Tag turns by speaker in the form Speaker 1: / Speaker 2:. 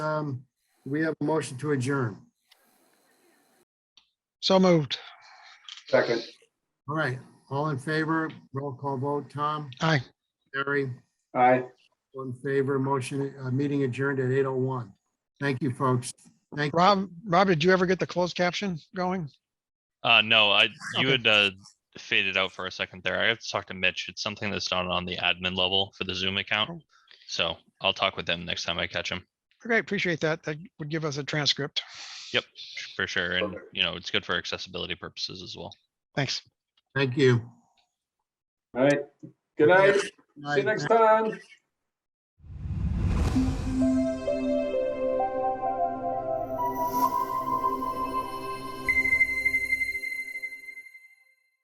Speaker 1: Um, we have a motion to adjourn.
Speaker 2: So moved.
Speaker 3: Second,
Speaker 1: All right, all in favor, roll call vote, Tom,
Speaker 2: Aye.
Speaker 1: Barry,
Speaker 3: aye.
Speaker 1: all in favor, motion, uh, meeting adjourned at eight oh one. Thank you, folks. Thank,
Speaker 2: Rob, Rob, did you ever get the closed caption going?
Speaker 4: Uh, no, I, you
Speaker 2: Okay.
Speaker 4: had, uh, faded out for a second there. I have to talk to Mitch. It's something that's not on the admin level for the Zoom account. So I'll talk with him next time I catch him,
Speaker 2: Okay, appreciate that. That would give us a transcript.
Speaker 4: for sure. And,
Speaker 3: Perfect.
Speaker 4: you know, it's good for accessibility purposes as well.
Speaker 2: Thanks.
Speaker 1: thank you.
Speaker 3: All right. Good night. See
Speaker 1: Bye.
Speaker 3: you next time.